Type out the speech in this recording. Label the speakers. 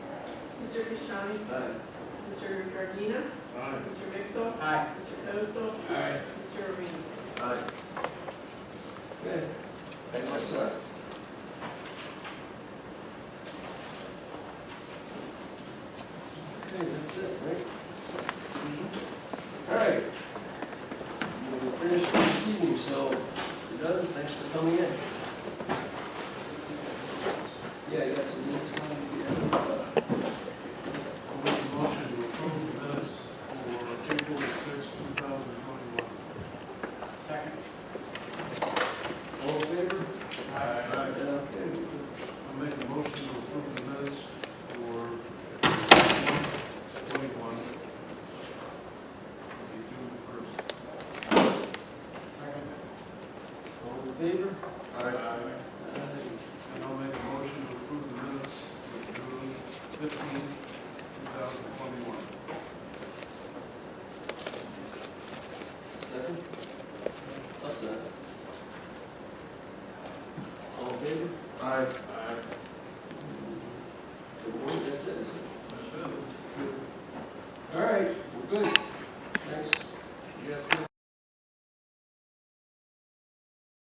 Speaker 1: Mr. Kashani?
Speaker 2: Aye.
Speaker 1: Mr. Giardina?
Speaker 2: Aye.
Speaker 1: Mr. Mixel?
Speaker 2: Aye.
Speaker 1: Mr. Dozel?
Speaker 2: Aye.
Speaker 1: Mr. Arena?
Speaker 2: Aye. Okay, thanks much, sir. Okay, that's it, right? All right. We're finished for this evening, so we're done, thanks for coming in. Yeah, yes, and that's one,
Speaker 3: I'll make a motion to approve the minutes for April 6, 2021. Second.
Speaker 2: yeah. All in favor? Yeah,
Speaker 3: Aye.
Speaker 2: okay.
Speaker 3: I'll make a motion to approve the minutes for 21, June 1st. Second.
Speaker 2: All in favor?
Speaker 3: Aye.
Speaker 2: Aye.
Speaker 3: And I'll make a motion to approve the minutes for June 15, 2021.
Speaker 2: Second? I'll second. All in favor?
Speaker 3: Aye.
Speaker 2: The board, that's it.
Speaker 3: That's it.
Speaker 2: All right, we're good.